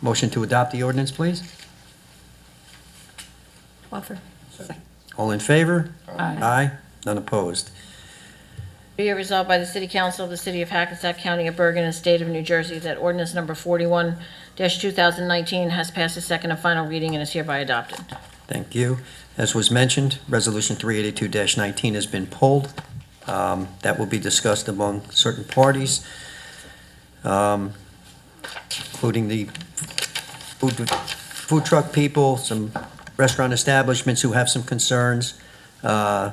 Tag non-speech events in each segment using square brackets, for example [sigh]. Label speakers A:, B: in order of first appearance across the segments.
A: Motion to adopt the ordinance, please.
B: Offer.
A: All in favor?
B: Aye.
A: Aye. None opposed.
C: Be it resolved by the City Council of the City of Hackensack County of Bergen and State of New Jersey that ordinance number 41-2019 has passed its second and final reading and is hereby adopted.
A: Thank you. As was mentioned, Resolution 382-19 has been pulled. Um, That will be discussed among certain parties, um, including the food food truck people, some restaurant establishments who have some concerns. Uh,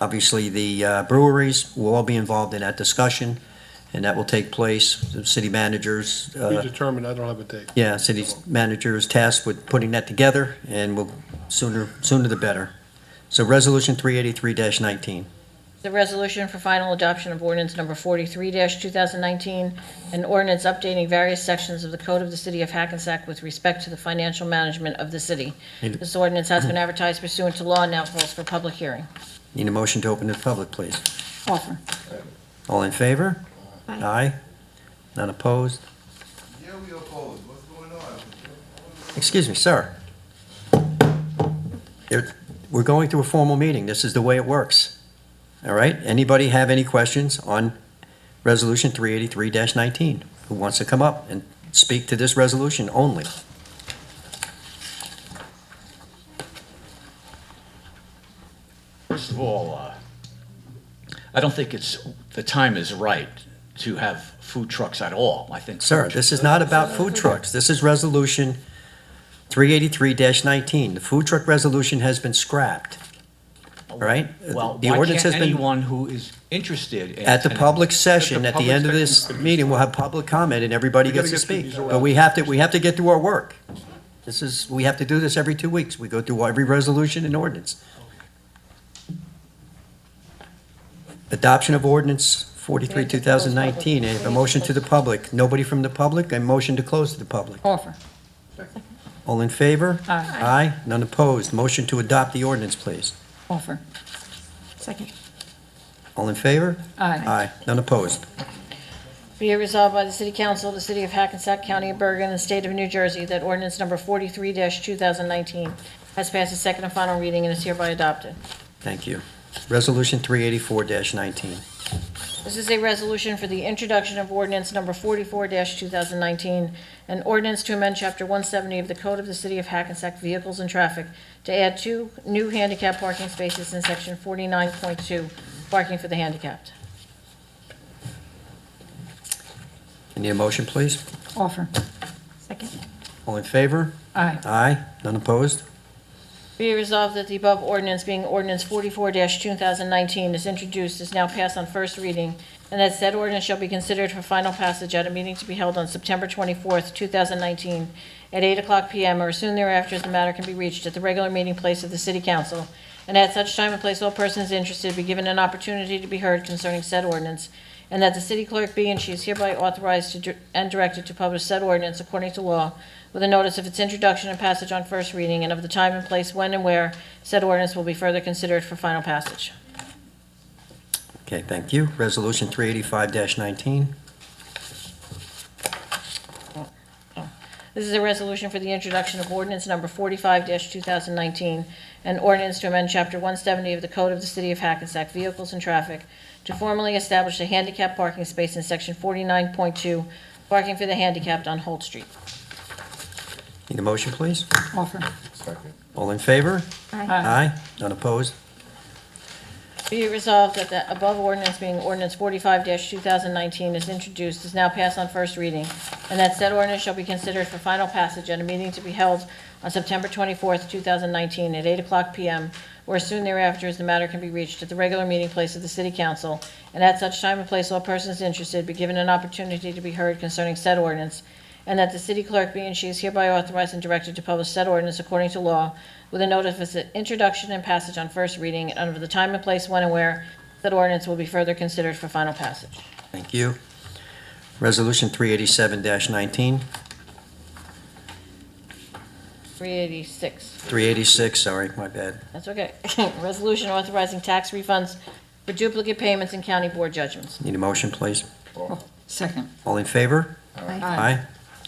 A: Obviously, the uh, breweries will all be involved in that discussion, and that will take place, the city managers. uh,
D: We determined, I don't have a date.
A: yeah, city manager is tasked with putting that together, and we'll, sooner, sooner the better. So Resolution 383-19.
C: The resolution for final adoption of ordinance number 43-2019, an ordinance updating various sections of the Code of the City of Hackensack with respect to the financial management of the city.
A: Need-
C: This ordinance has been advertised pursuant to law and now calls for public hearing.
A: Need a motion to open to the public, please.
B: Offer.
A: All in favor?
B: Aye.
A: None opposed?
E: Yeah, we oppose. What's going on?
A: Excuse me, sir. There- We're going through a formal meeting. This is the way it works. All right? Anybody have any questions on Resolution 383-19? Who wants to come up and speak to this resolution only?
F: First of all, uh, I don't think it's, the time is right to have food trucks at all, I think.
A: Sir, this is not about food trucks. This is Resolution 383-19. The food truck resolution has been scrapped right?
F: Oh, Well,
A: The
F: why
A: ordinance
F: can't
A: has been-
F: anyone who is interested in...
A: at the
F: in-
A: public session. At the
D: public
A: end of this
D: session.
A: meeting, we'll have public comment and everybody
D: We gotta
A: gets to
D: get through
A: speak.
D: these
A: But we have to, we have to get through our work. This is, we have to do this every two weeks. We go through every resolution and ordinance. Adoption of ordinance 43, 2019. A motion to the public. Nobody from the public? A motion to close to the public.
B: Offer.
A: All in favor?
B: Aye.
A: Aye, none opposed. Motion to adopt the ordinance, please.
B: Offer. Second.
A: All in favor?
B: Aye.
A: Aye, none opposed.
C: Be it resolved by the City Council of the City of Hackensack County of Bergen and State of New Jersey that ordinance number 43-2019 has passed its second and final reading and is hereby adopted.
A: Thank you. Resolution 384-19.
C: This is a resolution for the introduction of ordinance number 44-2019, an ordinance to amend Chapter 170 of the Code of the City of Hackensack Vehicles and Traffic to add two new handicap parking spaces in Section 49.2, parking for the handicapped.
A: I Need a motion, please?
B: Offer. Second.
A: All in favor?
B: Aye.
A: Aye, none opposed.
C: Be it resolved that the above ordinance, being ordinance 44-2019, is introduced, is now passed on first reading, and that said ordinance shall be considered for final passage at a meeting to be held on September 24th, 2019, at 8 o'clock PM or soon thereafter, as the matter can be reached at the regular meeting place of the City Council, and at such time and place all persons interested be given an opportunity to be heard concerning said ordinance, and that the city clerk be and she is hereby authorized to dir- and directed to publish said ordinance according to law with a notice of its introduction and passage on first reading and of the time and place when and where said ordinance will be further considered for final passage.
A: Okay, thank you. Resolution 385-19.
C: This is a resolution for the introduction of ordinance number 45-2019, an ordinance to amend Chapter 170 of the Code of the City of Hackensack Vehicles and Traffic to formally establish a handicap parking space in Section 49.2, parking for the handicapped on Holt Street.
A: Need a motion, please?
B: Offer.
A: All in favor?
B: Aye.
A: Aye, none opposed.
C: Be it resolved that the above ordinance being ordinance forty-five two thousand nineteen is introduced, is now passed on first reading, and that said ordinance shall be considered for final passage at a meeting to be held on September twenty-fourth, two thousand nineteen, at eight o'clock PM, or as soon thereafter, as the matter can be reached at the regular meeting place of the city council, and at such time and place all persons interested be given an opportunity to be heard concerning said ordinance, and that the city clerk be and she is hereby authorized and directed to publish said ordinance according to law with a notice of its introduction and passage on first reading and under the time and place when and where said ordinance will be further considered for final passage.
A: Thank you. Resolution 387-19,
C: 386.
A: 386, sorry, my bad.
C: That's okay. [laughs] Resolution authorizing tax refunds for duplicate payments and county board judgments.
A: Need a motion, please?
B: Second.
A: All in favor? Aye,